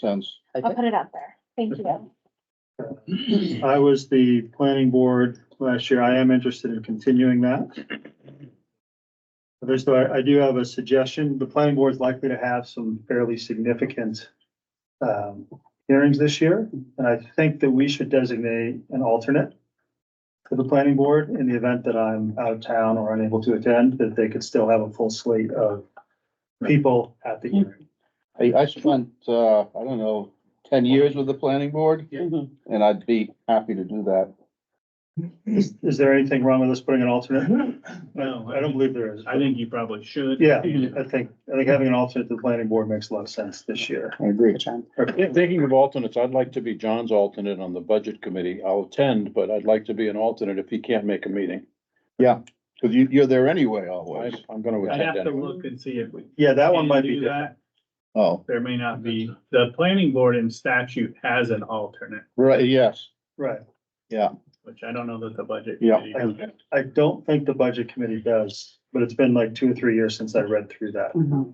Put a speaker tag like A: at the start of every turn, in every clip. A: sense.
B: I'll put it out there. Thank you.
C: I was the planning board last year. I am interested in continuing that. There's, I I do have a suggestion. The planning board is likely to have some fairly significant um, hearings this year, and I think that we should designate an alternate to the planning board in the event that I'm out of town or unable to attend, that they could still have a full slate of people at the hearing.
A: I, I spent, uh, I don't know, ten years with the planning board, and I'd be happy to do that.
C: Is is there anything wrong with us putting an alternate?
D: No,
C: I don't believe there is.
D: I think you probably should.
C: Yeah, I think, I think having an alternate to the planning board makes a lot of sense this year.
A: I agree.
C: Okay.
E: Thinking of alternates, I'd like to be John's alternate on the budget committee. I'll attend, but I'd like to be an alternate if he can't make a meeting.
A: Cause you, you're there anyway
E: I-
A: always.
E: I'm gonna
D: I'd have
E: attend
D: to
E: anyway.
D: look and see if we.
C: Yeah, that one
D: can
C: might be
D: do
C: different.
D: that.
A: Oh,
D: There may not be, the planning board in statute has an alternate,
A: right, yes.
C: Right.
D: which I don't know that the budget.
A: Yeah.
D: committee has.
C: I- I don't think the budget committee does, but it's been like two or three years since I read through that.
F: Mhm.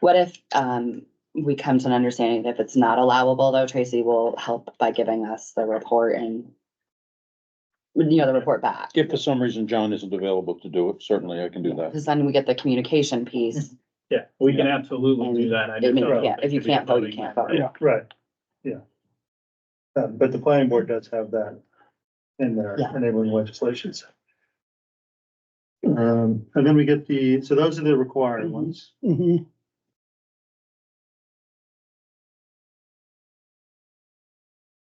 F: What if um we come to an understanding that if it's not allowable, though, Tracy will help by giving us the report and you know, the report back.
E: If for some reason John isn't available to do it, certainly I can do that.
F: Because then we get the communication piece.
D: Yeah, we can absolutely do that. I
F: I
D: just
F: mean,
D: don't know
F: yeah,
D: if it
F: if you
D: could be a
F: can't vote, you
D: voting
F: can't
D: member.
F: vote.
C: Right, yeah. Uh, but the planning board does have that in their
F: Yeah.
C: enabling legislations. Um, and then we get the, so those are the required ones.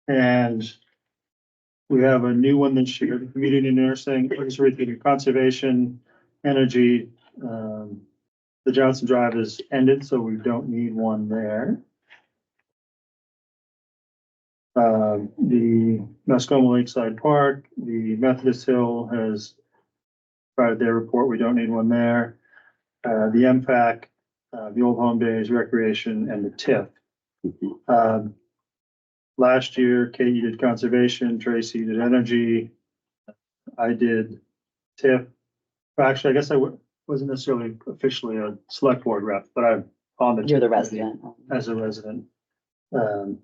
C: And we have a new one this year, community nursing, conservation, conservation, energy. Um, the Johnson Drive is ended, so we don't need one there. Um, the Mascoma Lakeside Park, the Methodist Hill has provided their report. We don't need one there. Uh, the MPAC, uh, the Old Home Days Recreation and the TIF. Um, last year, Kate, you did conservation, Tracy you did energy. I did TIF. Well, Actually, I guess I wa- wasn't necessarily officially a select board rep, but I'm on the.
F: You're the
C: TIF committee
F: resident.
C: As a resident. Um,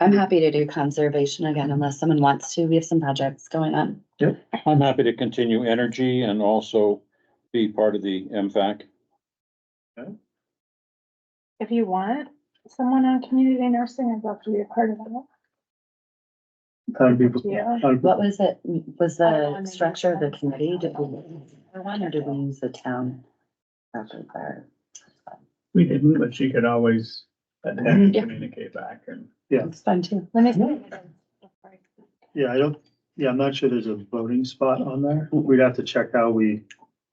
F: I'm happy to do conservation again unless someone wants to. We have some projects going on.
E: I'm happy to continue energy and also be part of the MFAC.
B: If you want someone on community nursing, I'd love to be a part of that.
C: I'd be-
B: Yeah.
C: I'd-
F: What was it? Was
B: I don't
F: the
B: know.
F: structure of the committee? Did we, one or did we use the town? After that?
D: We didn't, but she could always attempt to communicate back and.
F: It's fun too.
B: Let me. see.
C: Yeah, I don't, yeah, I'm not sure there's a voting spot on there. We'd have to check how we,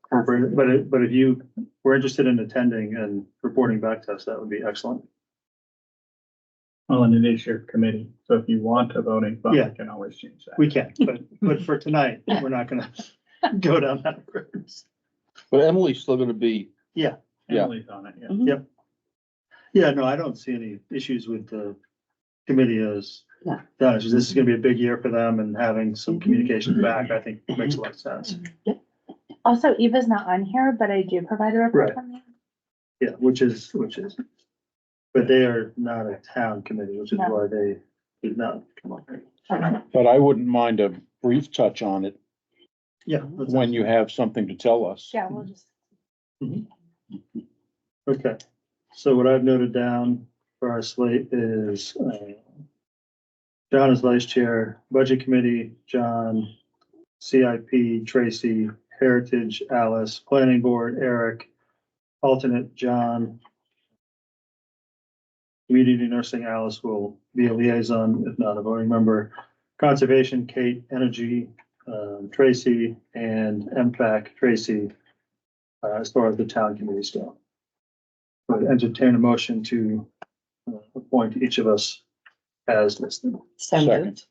C: but it, but if you were interested in attending and reporting back to us, that would be excellent.
D: Well, and it is your committee, so if you want a voting, but
C: Yeah.
D: we can always change that.
C: We can, but, but for tonight, we're not gonna go down that road.
A: But Emily's still gonna be, yeah.
D: Emily's on it, yeah.
C: Yeah, no, I don't see any issues with the committee as.
F: Yeah.
C: done. It's just This is gonna be a big year for them and having some communication back, I think makes a lot of sense.
B: Also, Eva's not on here, but I do provide a report
C: Right.
B: from me.
C: Yeah, which is, which is. But they are not a town committee, which is
B: No.
C: why they did not come up here.
E: But I wouldn't mind a brief touch on it
C: Yeah. that's-
E: when you have something to tell us.
B: Yeah, we'll just.
C: Okay, so what I've noted down for our slate is, uh, John is vice chair, budget committee, John, CIP, Tracy, heritage, Alice, planning board, Eric, alternate, John. Community nursing, Alice will be a liaison, if not a voting member, conservation, Kate, energy, um, Tracy, and MPAC, Tracy, uh, as far as the town committees go. Would entertain a motion to uh, appoint each of us as listed.
F: So
E: Second.
F: moved.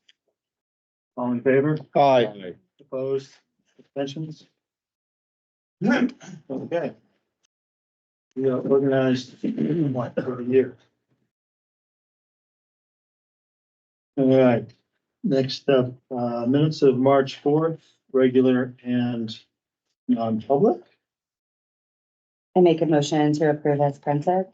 C: All in favor?
A: hi,
C: Opposed? Abstentions? Okay. We are organized what, over the year. All right, next up, uh, minutes of March fourth, regular and non-public.
F: I make a motion to approve as printed.